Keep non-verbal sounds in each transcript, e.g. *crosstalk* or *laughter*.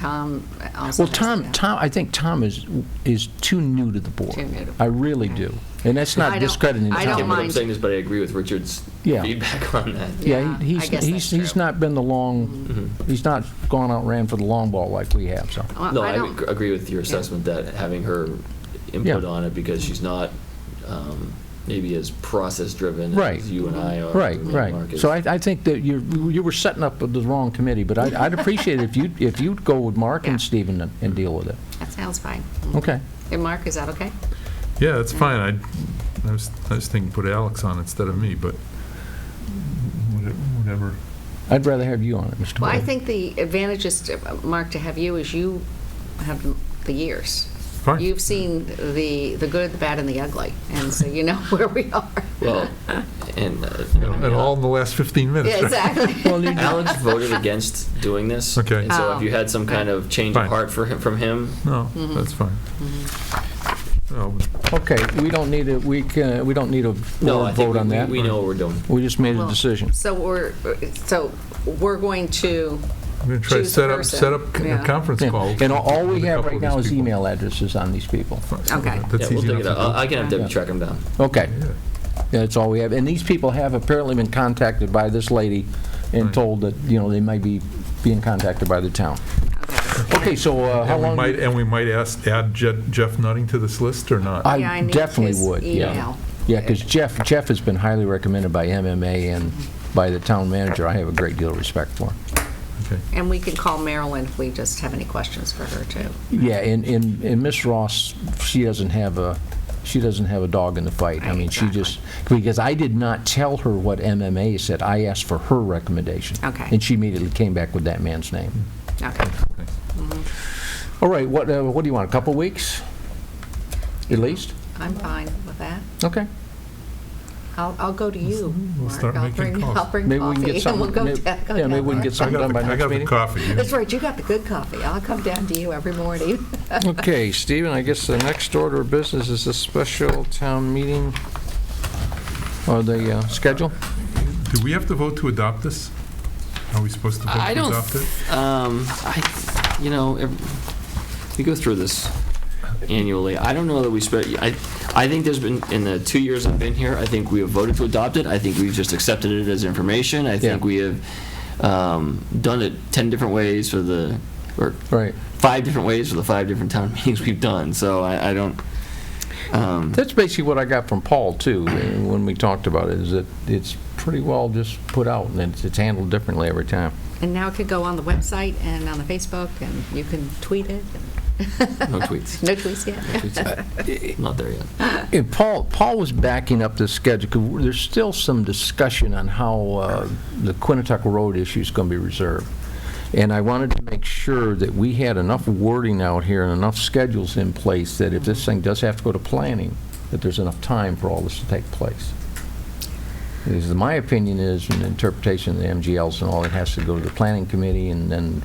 Tom also Well, has Tom, that. Tom, I think Tom is, is too new to the board. Too new to- I really do. And that's I not don't- discrediting Tom. I don't Yeah, what I'm mind. saying is, but I agree with Richard's Yeah. feedback *laughs* on that. Yeah, Yeah, he- I he's, guess he's, that's he's true. not been the long, Mm-hmm. he's not gone out and ran for the long ball like we have, so. Well, No, I I don't- ag- agree with your assessment that having her input Yeah. on it, because she's not um, maybe as process-driven Right. as you and I are. Right, and Mark right. is. So I, I think that you, you were setting up the wrong committee, but I- I'd appreciate it if you, if you'd go with Mark Yeah. and Stephen and- and deal with it. That sounds fine. Okay. And Mark, is that okay? Yeah, that's fine. I, I was, I was thinking put Alex on instead of me, but whate- whatever. I'd rather have you on it, Mr. Well, I Boyd. think the advantage is, to- Mark, to have you is you have the years. Fine. You've seen the, the good, the bad, and the ugly, and so you know *laughs* where we are. *laughs* Well, and. uh, And all in the last 15 minutes, Yeah, right? exactly. Well, you- Alex voted against doing this. Okay. And so Oh. if you had some kind of change of Fine. heart for him, from him, *laughs* No, Mm-hmm. that's fine. No, Okay, we don't need a, we can, we don't need a no, board I think vote on we- that. we know what we're doing. We just made a Well, decision. So we're, so we're going to, I'm going to try to Choose the set up, person. set up Yeah. a conference Yeah. call. And all- all we with a have couple right of now these is people. email addresses on these people. Okay. Yeah, That's we'll easy dig enough it to out. do. I I can have Yeah. Debbie track him down. Okay, Yeah. that's all we have. And these people have apparently been contacted by this lady and Right. told that, you know, they might be being contacted by the town. Okay, so uh, how And we long? might, and we might ask, add Je- Jeff Nutting to this list or not? Oh, Yeah, I I need definitely his would, yeah. email. Yeah, because Jeff, Jeff has been highly recommended by MMA and by the town manager. I have a great deal of respect for. Okay. and we can call Marilyn if we just have any questions for her, too. Yeah, and, and, and Ms. Ross, she doesn't have a, she doesn't have a dog in the fight. I mean, she Exactly. just, because I did not tell her what MMA said. I asked for her recommendation. Okay. And she immediately came back with that man's name. Okay. All right, what, uh, what do you want, a couple weeks? At least? I'm fine with that. *laughs* Okay. I'll, I'll go to you, we'll Mark. start I'll making bring- calls. I'll bring Maybe we can coffee, get and something. we'll go may- down- go Yeah, maybe down we can there. get I something got done the- by I next got the meeting. coffee. you- That's right, you got the good coffee. I'll come down to you every morning. Okay, Stephen, I guess the next order of business is a special town meeting, or the uh, schedule? Do we have to vote to adopt this? Are we supposed to vote I to don't, adopt it? um, I, you know, ev- we go through this annually. I don't know that we spent, I, I think there's been, in the two years I've been here, I think we have voted to adopt it. I think we've just accepted it as information. I think Yeah. we have, um, done it 10 different ways for the, or Right. five different ways for the five different town *laughs* meetings we've done. So I, I don't, *laughs* um, That's basically what I got from Paul, too, uh, when we talked about it, is that it's pretty well just put out, and it's- it's handled differently every time. *laughs* And now it could go on the website and on the Facebook, and you can tweet it. no tweets. No tweets yet. Not there yet. And Paul, Paul was backing up the schedule, 'cause there's still some discussion on how uh, the Quinnetuck Road issue is going to be reserved. And I wanted to make sure that we had enough wording out here and enough schedules in place that if this thing does have to go to planning, that there's enough time for all this to take place. Because my opinion is, and interpretation of the MGLs and all, it has to go to the planning committee, and then,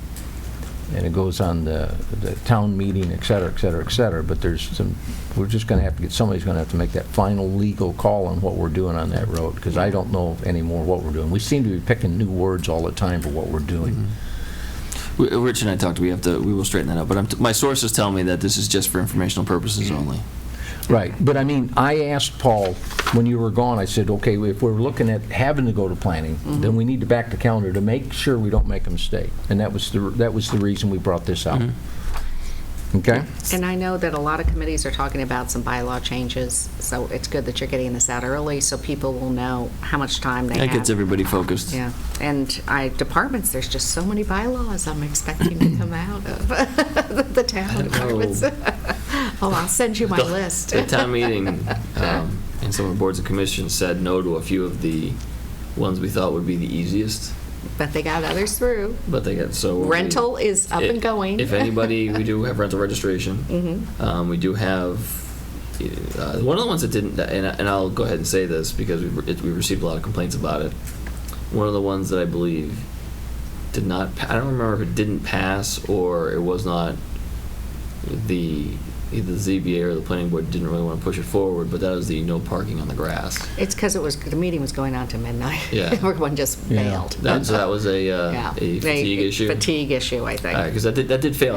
and it goes on the, the town meeting, et cetera, et cetera, et cetera, but there's some, we're just gonna have to get, somebody's gonna have to make that final legal call on what we're doing on that road, because I don't know anymore what we're doing. We seem to be picking new words all the time for what we're doing. We- Rich and I talked, we have to, we will straighten that out, but I'm, t- my sources tell me that this is just for informational purposes only. Right, but I mean, I asked Paul, when you were gone, I said, okay, if we're looking at having to go to planning, then we need to back the calendar to make sure we don't make a mistake. And that was the, that was the reason we brought this up. Okay? And I know that a lot of committees are talking about some bylaw changes, so it's good that you're getting this out early, so people will know how much time they have. That gets everybody focused. Yeah, and I, departments, there's just so many bylaws I'm expecting to come out of *laughs* the town departments. *laughs* Oh, I'll send you my The- list. The *laughs* town meeting um, and some of the boards and commissions said no to a few of the ones we thought would be the easiest, But they got others through. but they got, so. we- Rental is up and going. If anybody, we do have *laughs* rental registration. Um, We do have, uh, one of the ones that didn't, and I- and I'll go ahead and say this because we've it- we've received a lot of complaints about it. One of the ones that I believe did not, pa- I don't remember if it didn't pass or it was not the either the ZBA or the planning board didn't really want to push it forward, but that was the no parking on the grass. It's because it was, the meeting was going on to midnight. *laughs* Yeah. Everyone just Yeah. bailed. That, so that was a, uh, Yeah. a fatigue issue? Fatigue issue, I think. All right, because Uh, that did, that did fail